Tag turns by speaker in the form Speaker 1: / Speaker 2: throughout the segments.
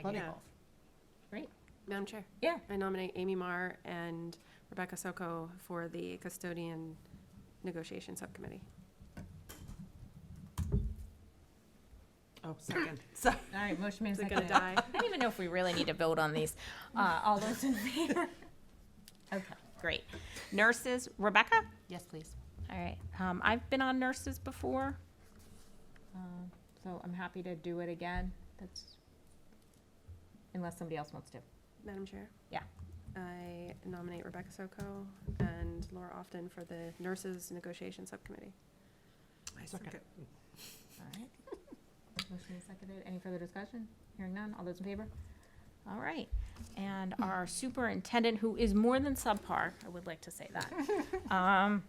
Speaker 1: Plenty.
Speaker 2: have.
Speaker 3: Great.
Speaker 2: Madam Chair,
Speaker 3: Yeah.
Speaker 2: I nominate Amy Marr and Rebecca Soko for the custodian negotiation subcommittee.
Speaker 1: Oh, second. So,
Speaker 3: All right, motion made
Speaker 2: Is it
Speaker 3: second.
Speaker 2: gonna die?
Speaker 3: I don't even know if we really need to vote on these. Uh, all those in favor? Okay, great. Nurses, Rebecca?
Speaker 1: yes, please.
Speaker 3: All right, um, I've been on nurses before. um, So I'm happy to do it again. That's, unless somebody else wants to.
Speaker 2: Madam Chair?
Speaker 3: Yeah.
Speaker 2: I nominate Rebecca Soko and Laura Often for the nurses negotiation subcommittee.
Speaker 1: I second.
Speaker 3: All right. Motion is seconded. Any further discussion? Hearing none. All those in favor? All right. And our superintendent, who is more than subpar, I would like to say that. Um,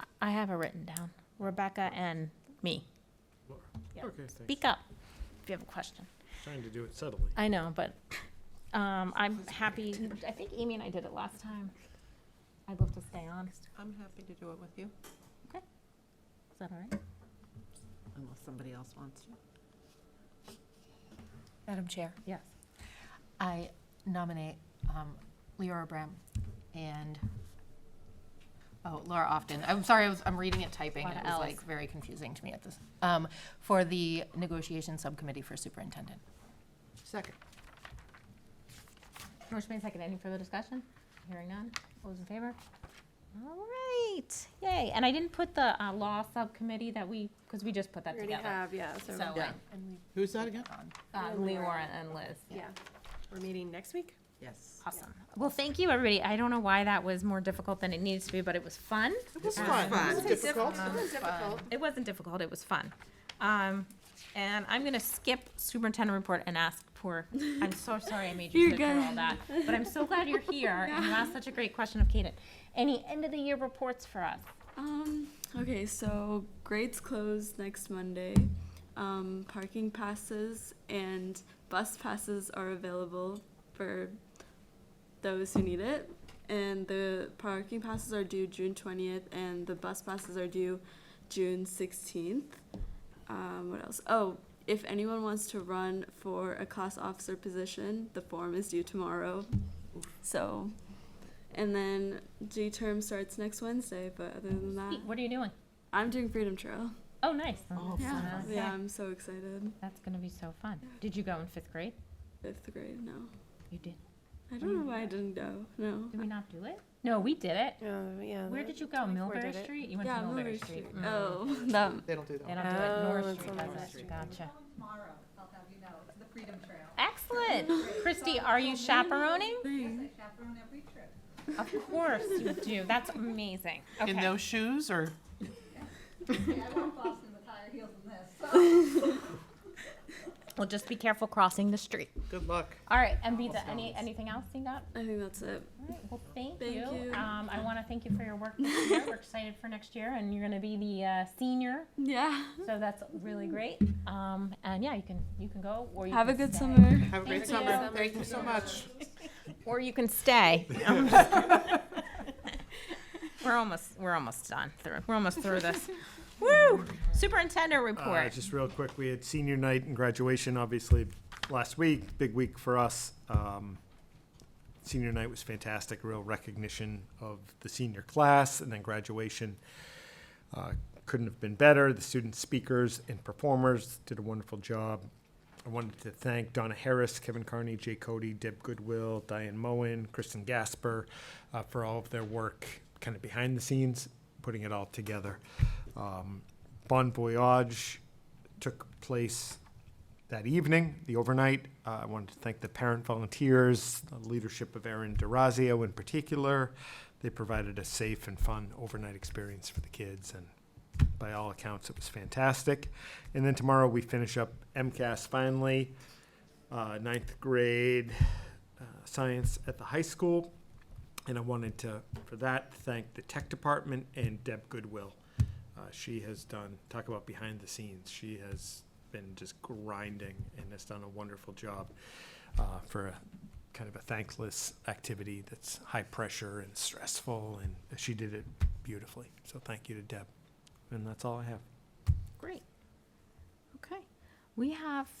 Speaker 3: I- I have it written down. Rebecca and me. Yeah.
Speaker 4: Okay, thanks.
Speaker 3: Speak up if you have a question.
Speaker 4: Trying to do it subtly.
Speaker 3: I know, but um, I'm happy. I think Amy and I did it last time. I'd love to stay on. Is
Speaker 1: I'm happy to do it with you.
Speaker 3: that all right?
Speaker 1: Unless somebody else wants to.
Speaker 5: Madam Chair,
Speaker 3: Yes.
Speaker 5: I nominate um, Leora Brem and, oh, Laura Often. I'm sorry, I was, I'm reading it typing.
Speaker 3: Lot
Speaker 5: It
Speaker 3: of
Speaker 5: was
Speaker 3: Ls.
Speaker 5: like very confusing to me at this, um, for the negotiation subcommittee for superintendent.
Speaker 1: Second.
Speaker 3: Motion made second. Any further discussion? Hearing none. All those in favor? All right. Yay. And I didn't put the uh, law subcommittee that we, because we just put that
Speaker 2: We already
Speaker 3: together.
Speaker 2: have, yeah,
Speaker 5: So,
Speaker 2: so,
Speaker 1: Yeah.
Speaker 5: and we-
Speaker 4: Who's that again?
Speaker 5: on.
Speaker 3: Uh, Leora and Liz.
Speaker 2: yeah. We're meeting next week?
Speaker 1: Yes.
Speaker 3: Awesome. Well, thank you, everybody. I don't know why that was more difficult than it needs to be, but it was fun. Um,
Speaker 4: It was
Speaker 1: fun. fun. It
Speaker 4: Difficult.
Speaker 2: difficult.
Speaker 3: It wasn't difficult, it was fun. Um, and I'm gonna skip superintendent report and ask for, I'm so sorry I made you sit through all that. But I'm so glad you're here and you asked such a great question of Kaden. Any end of the year reports for us?
Speaker 6: Um, okay, so grades close next Monday. Um, parking passes and bus passes are available for those who need it. And the parking passes are due June 20th, and the bus passes are due June 16th. Um, what else? Oh, if anyone wants to run for a class officer position, the form is due tomorrow. So, and then G term starts next Wednesday, but other than that,
Speaker 3: Pete, What are you doing?
Speaker 6: Uh, I'm doing Freedom Trail.
Speaker 3: Oh, nice.
Speaker 1: Oh,
Speaker 6: Yeah.
Speaker 1: fun.
Speaker 3: Okay.
Speaker 6: Yeah, I'm so excited.
Speaker 3: That's gonna be so fun. Did you go in fifth grade?
Speaker 6: Fifth grade, no.
Speaker 3: You did.
Speaker 6: I don't know why I didn't go. No.
Speaker 3: Did we not do it? No, we did it.
Speaker 2: Oh, yeah.
Speaker 3: Where
Speaker 2: the
Speaker 3: did you go?
Speaker 2: 24
Speaker 3: Millbury
Speaker 2: did it.
Speaker 3: Street? You went
Speaker 6: Yeah,
Speaker 3: to Millbury
Speaker 6: Mulberry
Speaker 3: Street.
Speaker 6: Street.
Speaker 3: Mm.
Speaker 6: Oh, that.
Speaker 1: They don't do that.
Speaker 3: They
Speaker 1: one.
Speaker 3: don't do it.
Speaker 2: Oh,
Speaker 3: North
Speaker 2: it's
Speaker 3: Street
Speaker 2: on
Speaker 3: does
Speaker 2: North
Speaker 3: it.
Speaker 2: Street.
Speaker 3: Gotcha.
Speaker 7: tomorrow, I'll have you know, it's the Freedom Trail.
Speaker 3: Excellent. Christy, are you chaperoning?
Speaker 7: I chaperone every trip.
Speaker 3: Of course you do. That's amazing. Okay.
Speaker 8: In those shoes or?
Speaker 7: Okay, I went to Boston with higher heels than this, so.
Speaker 3: Well, just be careful crossing the street.
Speaker 4: Good luck.
Speaker 3: All right, and Vita, any, anything else you got?
Speaker 6: Oh, I think that's it.
Speaker 3: All right, well, thank
Speaker 6: Thank
Speaker 3: you.
Speaker 6: you.
Speaker 3: Um, I want to thank you for your work this year. We're excited for next year, and you're going to be the uh, senior,
Speaker 6: Yeah.
Speaker 3: so that's really great. Um, and yeah, you can you can go or you
Speaker 6: Have a
Speaker 3: can
Speaker 6: good
Speaker 3: stay.
Speaker 6: summer.
Speaker 8: Have a great
Speaker 3: Thank you.
Speaker 8: summer. Thank you so much.
Speaker 3: Or you can stay. we're almost we're almost done through. We're almost through this. Woo! Superintendent
Speaker 4: Uh,
Speaker 3: report.
Speaker 4: just real quick, we had senior night and graduation, obviously, last week, big week for us. Um, senior night was fantastic, real recognition of the senior class, and then graduation uh, couldn't have been better. The student speakers and performers did a wonderful job. I wanted to thank Donna Harris, Kevin Carney, Jay Cody, Deb Goodwill, Diane Moen, Kristen Gasper uh, for all of their work kind of behind the scenes, putting it all together. Um, bon voyage took place that evening, the overnight. Uh, I wanted to thank the parent volunteers, the leadership of Erin Durazio in particular. They provided a safe and fun overnight experience for the kids, and by all accounts, it was fantastic. And then tomorrow we finish up MCAS finally, uh, ninth grade uh, science at the high school. And I wanted to, for that, thank the tech department and Deb Goodwill. Uh, she has done, talk about behind the scenes, she has been just grinding and has done a wonderful job uh, for a, kind of a thankless activity that's high pressure and stressful, and she did it beautifully. So thank you to Deb. And that's all I have.
Speaker 3: Great. Okay. We have